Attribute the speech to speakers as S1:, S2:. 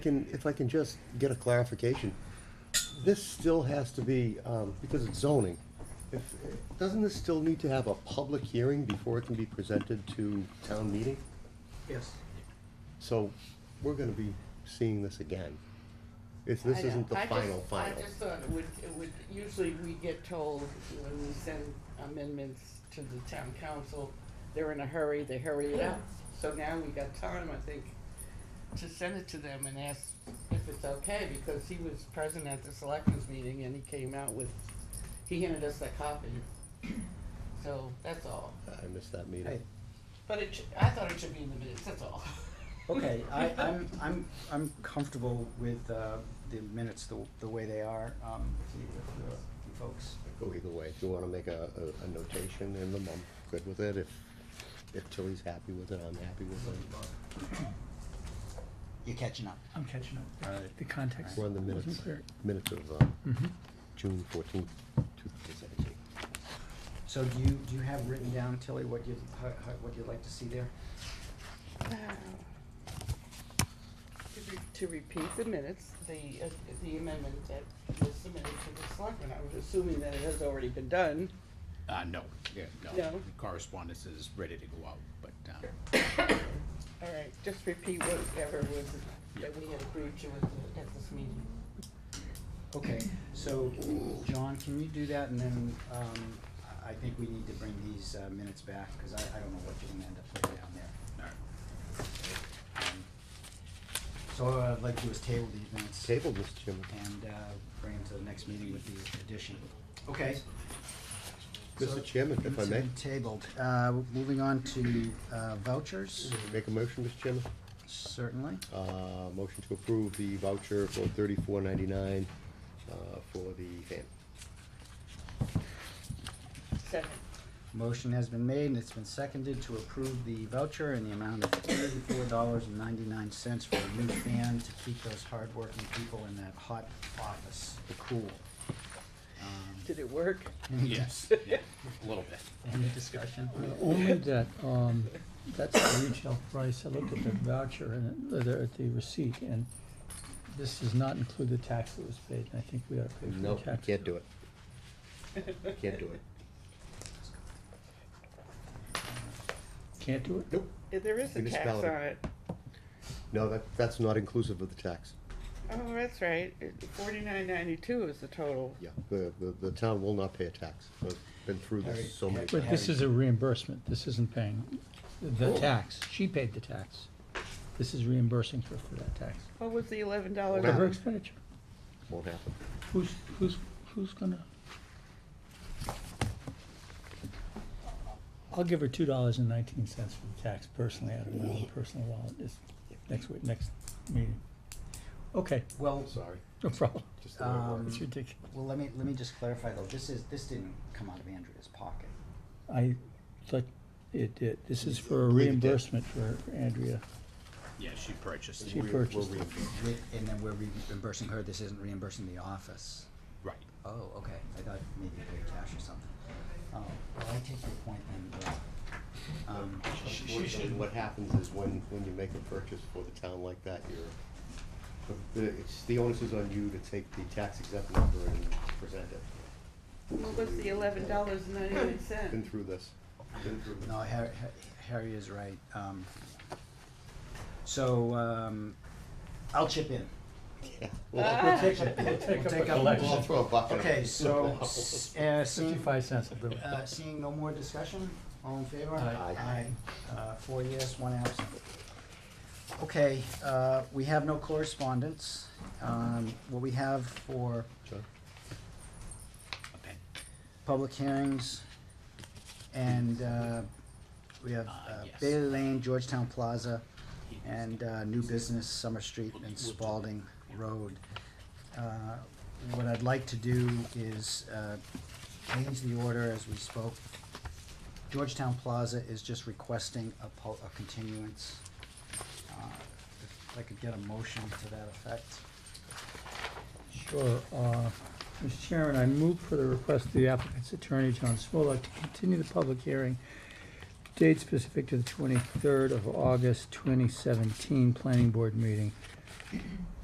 S1: Can, if I can just get a clarification, this still has to be, um, because it's zoning, if, doesn't this still need to have a public hearing before it can be presented to town meeting?
S2: Yes.
S1: So, we're gonna be seeing this again. If this
S3: I know.
S1: isn't the
S3: I just-
S1: final final.
S3: I just thought it would, it would, usually we get told when we send amendments to the town council, they're in a hurry, they hurry it up. So now we got time, I think, to send it to them and ask if it's okay, because he was present at the selectmen's meeting and he came out with, he handed us that copy. So that's all.
S1: I missed that
S2: Hey,
S1: meeting.
S3: But it, should- I thought it should be in the minutes, that's all.
S2: okay, I, I'm, I'm, I'm comfortable with, uh, the minutes the, the way they are, um, if you, if you- you folks.
S1: Go either way, if you wanna make a, a, a notation in them, I'm good with it, if, if Tilly's happy with it, I'm happy with it.
S2: You're catching up.
S4: I'm catching up.
S2: All right.
S4: The context.
S1: We're on the
S4: wasn't
S1: minutes,
S4: clear.
S1: minutes of, uh,
S4: Mhm.
S1: June fourteenth, two thousand seventeen.
S2: So do you, do you have written down, Tilly, what you, how, how, what you'd like to see there?
S3: To re- To repeat the minutes, the, uh, the amendment that was submitted to the selectmen, I was assuming that it has already been done.
S5: Uh, no, yeah, no.
S3: No.
S5: The Correspondence is ready to go out, but, um,
S3: All right, just repeat whatever was, that we had agreed to at, the- at this meeting.
S2: Okay, so, John, can you do that, and then, um, I- I think we need to bring these, uh, minutes back, cause I, I don't know what you're gonna end up putting down there. Um, So what I'd like to do is table these minutes.
S1: Table, Mr. Chairman.
S2: and uh, bring him to the next meeting with the addition. Okay. So-
S1: Mr. Chairman, if I
S2: Minutes
S1: may,
S2: have been Tabled. Uh, Moving on to uh, vouchers,
S1: make a motion, Mr. Chairman.
S2: certainly.
S1: Uh, motion to approve the voucher for thirty-four ninety-nine, uh, for the fan.
S3: Second,
S2: Motion has been made and it's been seconded to approve the voucher in the amount of thirty-four dollars and ninety-nine cents for a new fan to keep those hardworking people in that hot office cool. Um,
S3: did it work?
S5: yes, yeah, a little bit.
S2: Any discussion?
S4: Only that, um, that's the retail price. I looked at the voucher and it- uh, the, the receipt and this does not include the tax that was paid. And I think we ought to pay for the
S1: No,
S4: tax.
S1: can't do it. Can't do it.
S4: Can't do it?
S1: Nope.
S3: Yeah, There is a tax on
S1: Municipality.
S3: it.
S1: No, that, that's not inclusive of the tax.
S3: Oh, that's right, forty-nine ninety-two is the total.
S1: Yeah, the, the, the town will not pay a tax. I've been through this so many
S4: But
S1: times.
S4: this is a reimbursement. This isn't paying
S1: Oh.
S4: the tax. She paid the tax. This is reimbursing her for that tax.
S3: What was the eleven
S4: For her
S1: Whatever.
S3: dollars?
S4: expenditure.
S1: Won't happen.
S4: Who's, who's, who's gonna? I'll give her two dollars and nineteen cents for the tax personally, out of my own personal wallet, this, next week, next meeting. Okay,
S2: Well,
S1: I'm sorry.
S4: no problem,
S1: Just the way it
S2: Um,
S1: works.
S4: it's ridiculous.
S2: well, let me, let me just clarify though, this is, this didn't come out of Andrea's pocket.
S4: I, thought it, did. this is for a
S1: Believe it did.
S4: reimbursement for Andrea,
S5: Yeah, she purchased.
S4: she
S1: We're- we're
S4: purchased it.
S1: reimbursed.
S2: Re- And then we're reimbursing her, this isn't reimbursing the office.
S5: Right.
S2: Oh, okay, I thought maybe you paid cash or something. Oh, well, I take your point then, but, um,
S1: Unfortunately, what happens is when, when you make a purchase for the town like that, you're, the, it's, the onus is on you to take the tax exempt number and present it.
S3: What was the eleven dollars and ninety-nine
S1: Been
S3: cents?
S1: through this, been through this.
S2: no, Harry, Harry is right, um, so, um, I'll chip in.
S1: Yeah. Well,
S2: We'll take up, we'll
S4: take up a
S2: take up
S4: collection.
S1: I'll
S2: both.
S1: throw a bucket.
S2: Okay, so, s- uh, seeing,
S4: Fifty-five cents will do it.
S2: uh, seeing no more discussion, all in favor?
S4: Aye.
S1: Aye.
S2: Aye. Uh, four yes, one absent. Okay, uh, we have no correspondence, um, what we have for
S1: John?
S5: A pen.
S2: public hearings, and, uh, we have,
S5: Ah,
S2: uh,
S5: yes.
S2: Bailey Lane, Georgetown Plaza, and, uh, new business, Summer Street and Spalding Road. Uh, what I'd like to do is, uh, change the order as we spoke. Georgetown Plaza is just requesting a pul- a continuance. Uh, If I could get a motion to that effect.
S4: Sure. uh, Mr. Chairman, I move for the request of the applicant's attorney, John Smolak, to continue the public hearing, date specific to the 23rd of August 2017 Planning Board meeting